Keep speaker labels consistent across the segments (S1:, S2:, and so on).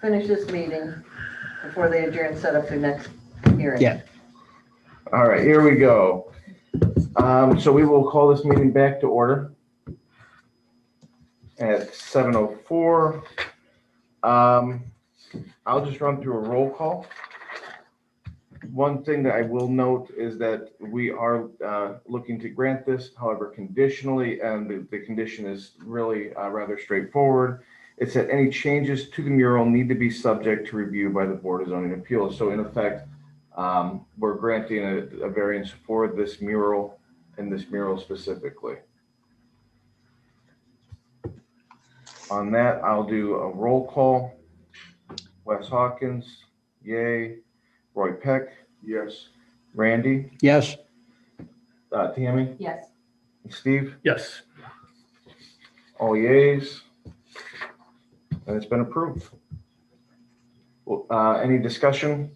S1: finish this meeting before they adjourn, set up their next hearing.
S2: Yeah.
S3: All right, here we go. Um, so we will call this meeting back to order at seven oh four. Um, I'll just run through a roll call. One thing that I will note is that we are, uh, looking to grant this, however, conditionally, and the, the condition is really, uh, rather straightforward. It's that any changes to the mural need to be subject to review by the Board of Zoning Appeals. So in effect, um, we're granting a, a variance for this mural and this mural specifically. On that, I'll do a roll call. Wes Hawkins, yay. Roy Peck, yes. Randy,
S2: Yes,
S3: uh, Tammy,
S1: Yes.
S3: Steve,
S4: Yes.
S3: all yays. And it's been approved. Well, uh, any discussion?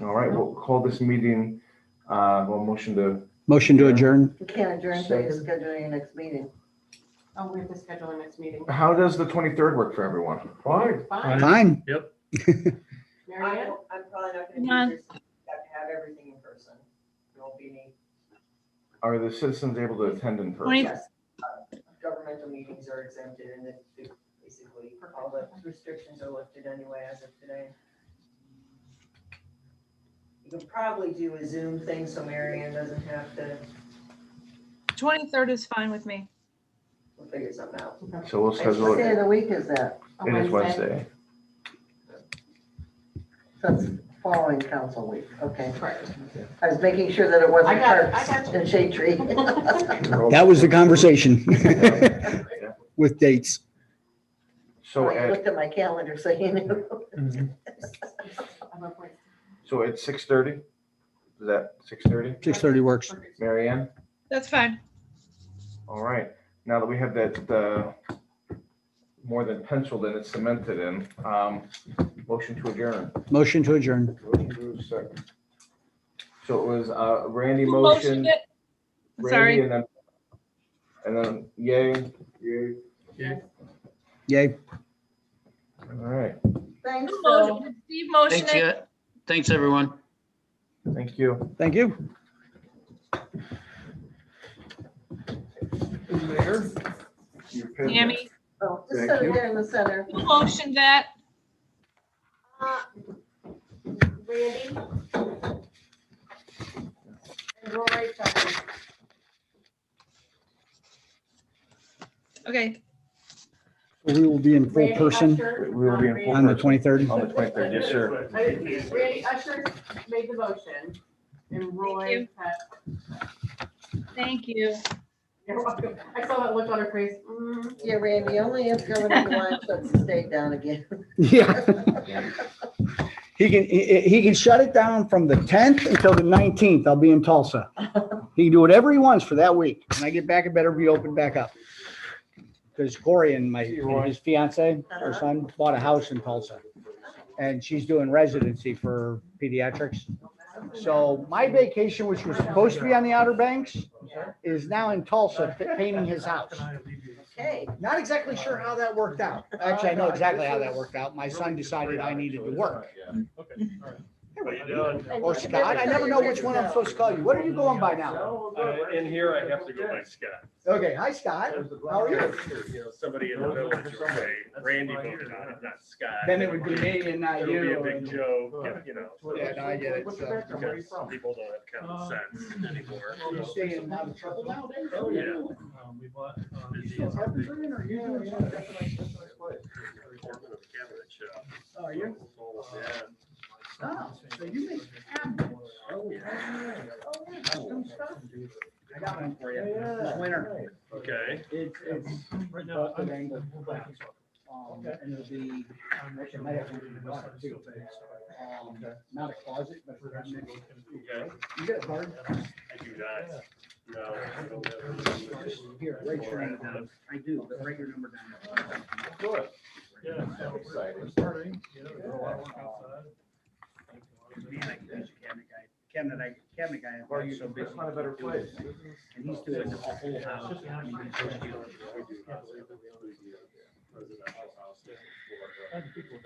S3: All right, we'll call this meeting, uh, well, motion to
S2: motion to adjourn.
S1: You can't adjourn until you schedule your next meeting.
S5: Oh, we have to schedule a next meeting.
S3: How does the twenty-third work for everyone?
S4: Fine.
S5: Fine.
S2: Fine.
S4: Yep.
S5: Mary Ann?
S6: I'm, I'm probably not gonna
S7: Yeah.
S6: be here, so you have to have everything in person. There'll be,
S3: Are the citizens able to attend in person?
S7: Twenty-
S6: yes, uh, governmental meetings are exempted and it, it- basically, all the restrictions are lifted anyway as of today. You can probably do a Zoom thing so Marion doesn't have to,
S7: 23rd is fine with me.
S6: we'll figure something out.
S3: So we'll schedule
S1: What day
S3: it.
S1: of the week is that?
S5: A
S3: It is Wednesday.
S1: That's following council week, okay.
S5: Correct.
S1: I was making sure that it wasn't
S5: I got- I
S1: Parks
S5: got you.
S1: and Shade Tree.
S2: That was the conversation
S3: Yeah.
S2: with dates.
S3: So
S1: I
S3: at,
S1: Looked at my calendar, so you knew.
S5: I'm up right-
S3: so at six thirty? Is that six thirty?
S2: 6:30 works.
S5: Perfect.
S3: Mary Ann?
S7: That's fine.
S3: All right, now that we have that, uh, more than penciled in, it's cemented in, um, motion to adjourn.
S2: Motion to adjourn.
S3: So it was, uh, Randy
S7: Who motioned
S3: motion,
S7: it? I'm
S3: Randy
S7: Sorry.
S3: and then, and then yay, yay.
S2: Yay.
S3: All right,
S1: Thanks,
S7: Who
S1: Phil.
S7: motioned it? Steve
S8: Thanks,
S7: motioned it.
S8: yeah. Thanks, everyone.
S3: thank you.
S2: Thank you.
S7: Tammy,
S1: Oh, Just set it there in the center.
S7: who motioned that?
S9: Uh, Randy? And Rory, sorry.
S7: Okay,
S2: We will be in full
S9: Randy
S2: person
S9: Usher,
S3: We will be
S9: not
S3: in
S9: Randy-
S3: full-
S2: on the 23rd.
S3: On the twenty-third, yes, sir.
S5: um, I- Randy Usher made the motion and Roy
S7: you.
S5: had,
S7: thank you.
S5: you're welcome. I saw that look on her face. Mm.
S1: Yeah, Randy, only if Governor DeWine shuts the state down again.
S2: Yeah. He can, he, he can shut it down from the 10th until the 19th. I'll be in Tulsa. He can do whatever he wants for that week. When I get back, it better be open back up. Because Corey and my, and his fiance, her son, bought a house in Tulsa. And she's doing residency for pediatrics. So my vacation, which was supposed to be on the Outer Banks, is now in Tulsa painting his house.
S1: Okay.
S2: Not exactly sure how that worked out. Actually, I know exactly how that worked out. My son decided I needed to work. Or Scott, I never know which one I'm supposed to call you. What are you going by now?
S4: Uh, In here, I have to go by Scott.
S2: Okay, hi Scott. How are you?
S4: You know, somebody in the village would say, Randy voted on it, not Scott.
S2: Then it would be me and not
S4: It would be a
S2: you.
S4: big
S2: and-
S4: joke, if, you know.
S2: Yeah, no, I uh, get it. So,
S4: Because people don't have common sense anymore.
S2: You staying Oh, out of trouble nowadays?
S4: Yeah.
S2: You still have it in or you doing something? Oh, you? Oh, so you make cabinets. Oh, yeah. Custom stuff? I got one for you. This winter.
S4: Okay,
S2: It's, it's. Right now. Um, and it'll be, actually, I might have to do the water too. Um, Not a closet, but.
S4: okay,
S2: You got a card?
S4: I do not. No. I don't have it.
S2: Here, write your name down. I do, but write your number down. Man, I could use a cabinet guy, cabinet, I, cabinet guy. I've got so busy doing it. And he's doing the whole house. I mean, he's just doing-